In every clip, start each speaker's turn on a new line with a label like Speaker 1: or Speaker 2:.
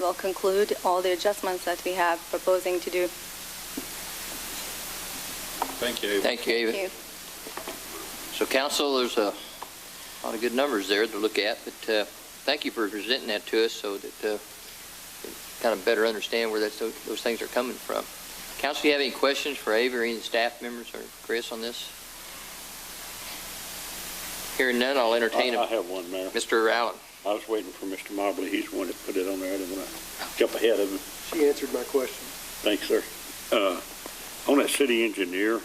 Speaker 1: will conclude all the adjustments that we have proposing to do.
Speaker 2: Thank you.
Speaker 3: Thank you,
Speaker 1: Thank
Speaker 3: Ava.
Speaker 1: you.
Speaker 3: So council, there's a lot of good numbers there to look at, but uh, thank you for presenting that to us so that uh, we kind of better understand where that's, those things are coming from. Council, you have any questions for Ava or any staff members or Chris on this? Hearing none, I'll entertain
Speaker 2: I I
Speaker 3: them.
Speaker 2: have one, Mayor.
Speaker 3: Mr. Allen.
Speaker 2: I was waiting for Mr. Mobley. He's the one that put it on there. I didn't want to jump ahead of him.
Speaker 4: She answered my question.
Speaker 2: Thanks, sir. Uh, On that city engineer,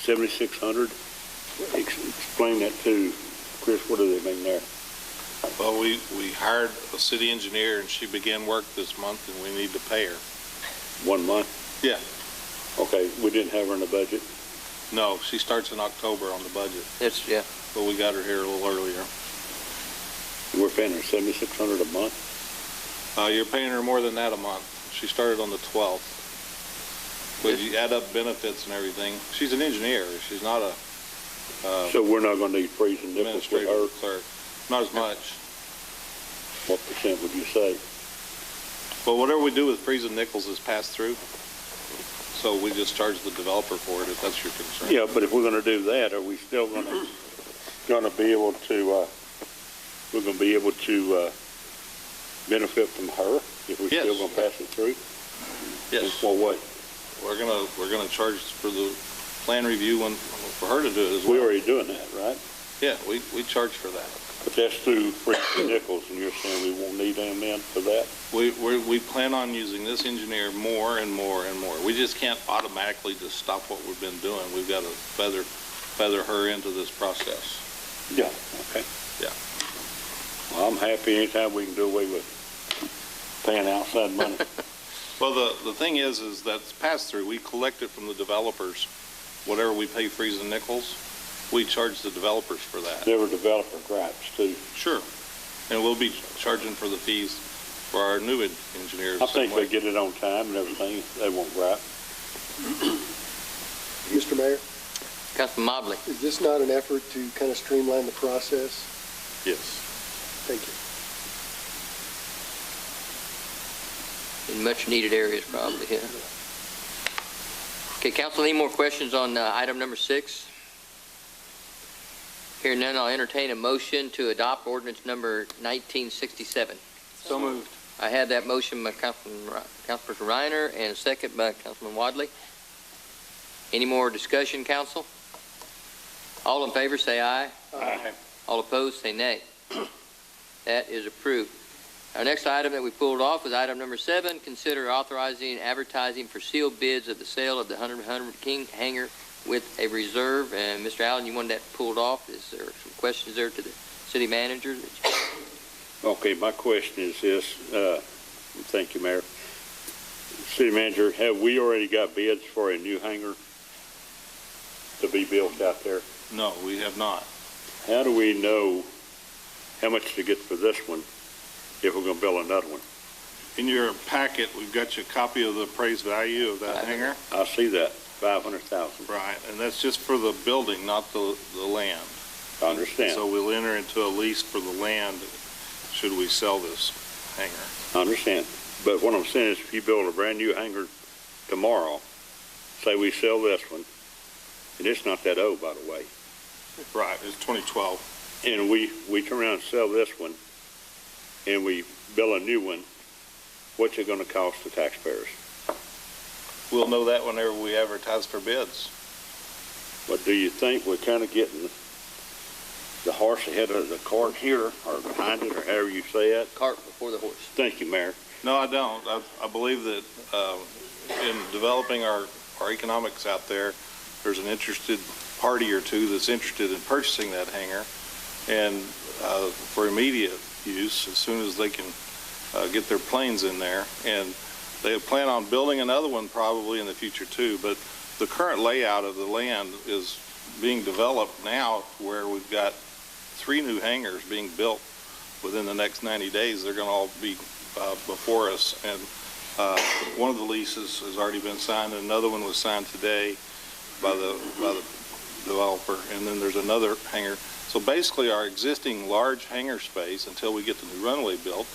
Speaker 2: 7,600, ex- explain that to Chris. What are they doing there?
Speaker 5: Well, we, we hired a city engineer and she began work this month and we need to pay her.
Speaker 2: One month?
Speaker 5: Yeah.
Speaker 2: Okay, we didn't have her in the budget.
Speaker 5: No, she starts in October on the budget,
Speaker 3: That's, yeah,
Speaker 5: but we got her here a little earlier.
Speaker 2: We're paying her 7,600 a month?
Speaker 5: Uh, you're paying her more than that a month. She started on the 12th. But you add up benefits and everything. She's an engineer. She's not a uh,
Speaker 2: So we're not going to need freezing difference with her?
Speaker 5: administrative clerk. Not as much.
Speaker 2: What percent would you say?
Speaker 5: But whatever we do with Freeze and Nichols is passed through. So we just charge the developer for it if that's your concern.
Speaker 2: Yeah, but if we're going to do that, are we still going to, going to be able to, uh, we're going to be able to uh, benefit from her if we're still
Speaker 5: Yes.
Speaker 2: going to pass it through?
Speaker 5: Yes.
Speaker 2: In what way?
Speaker 5: We're gonna, we're gonna charge for the plan review when, for her to do it as well.
Speaker 2: We're already doing that, right?
Speaker 5: Yeah, we, we charge for that.
Speaker 2: But that's through Freaks and Nichols, and you're saying we won't need them then for that?
Speaker 5: We, we, we plan on using this engineer more and more and more. We just can't automatically just stop what we've been doing. We've gotta feather, feather her into this process.
Speaker 2: Yeah. Okay.
Speaker 5: Yeah.
Speaker 2: Well, I'm happy anytime we can do away with paying outside money.
Speaker 5: Well, the, the thing is, is that's pass-through. We collect it from the developers. Whatever we pay Freeze and Nichols, we charge the developers for that.
Speaker 2: Never developer gripes, too.
Speaker 5: Sure. And we'll be charging for the fees for our new en- engineers.
Speaker 2: I think
Speaker 5: same way.
Speaker 2: they get it on time and everything. They won't gripe.
Speaker 4: Mr. Mayor,
Speaker 3: Councilman Mobley.
Speaker 4: is this not an effort to kind of streamline the process?
Speaker 5: Yes.
Speaker 4: Thank you.
Speaker 3: in much-needed areas probably, yeah. Okay, council, any more questions on uh, item number six? Hearing none, I'll entertain a motion to adopt ordinance number 1967.
Speaker 1: So
Speaker 3: moved. I had that motion by Councilman, Ri- Councilperson Reiner and a second by Councilman Wadley. Any more discussion, council? All in favor, say aye. All opposed, say nay. That is approved. Our next item that we pulled off was item number seven, consider authorizing advertising for sealed bids of the sale of the 100 100 King hangar with a reserve. And Mr. Allen, you wanted that pulled off. Is there some questions there to the city manager?
Speaker 2: Okay, my question is this, uh, thank you, Mayor. City Manager, have we already got bids for a new hangar to be built out there?
Speaker 5: No, we have not.
Speaker 2: How do we know how much to get for this one if we're gonna build another one?
Speaker 5: In your packet, we've got you a copy of the appraised value of that hangar.
Speaker 2: I see that, five hundred thousand,
Speaker 5: Right, and that's just for the building, not the, the land.
Speaker 2: I understand,
Speaker 5: So we'll enter into a lease for the land should we sell this hangar.
Speaker 2: I understand. But what I'm saying is if you build a brand-new hangar tomorrow, say we sell this one, and it's not that old, by the way,
Speaker 5: Right, it's 2012.
Speaker 2: and we, we turn around and sell this one, and we build a new one, what's it gonna cost the taxpayers?
Speaker 5: We'll know that whenever we advertise for bids.
Speaker 2: But do you think we're kinda getting the horse ahead of the cart here, or behind it, or however you say it?
Speaker 3: Cart before the horse.
Speaker 2: Thank you, Mayor.
Speaker 5: No, I don't. I, I believe that, uh, in developing our, our economics out there, there's an interested party or two that's interested in purchasing that hangar and, uh, for immediate use as soon as they can, uh, get their planes in there. And they plan on building another one probably in the future too, but the current layout of the land is being developed now where we've got three new hangars being built within the next 90 days. They're going to all be uh, before us, and uh, one of the leases has already been signed, and another one was signed today by the, by the developer, and then there's another hangar. So basically, our existing large hangar space, until we get the new runway built,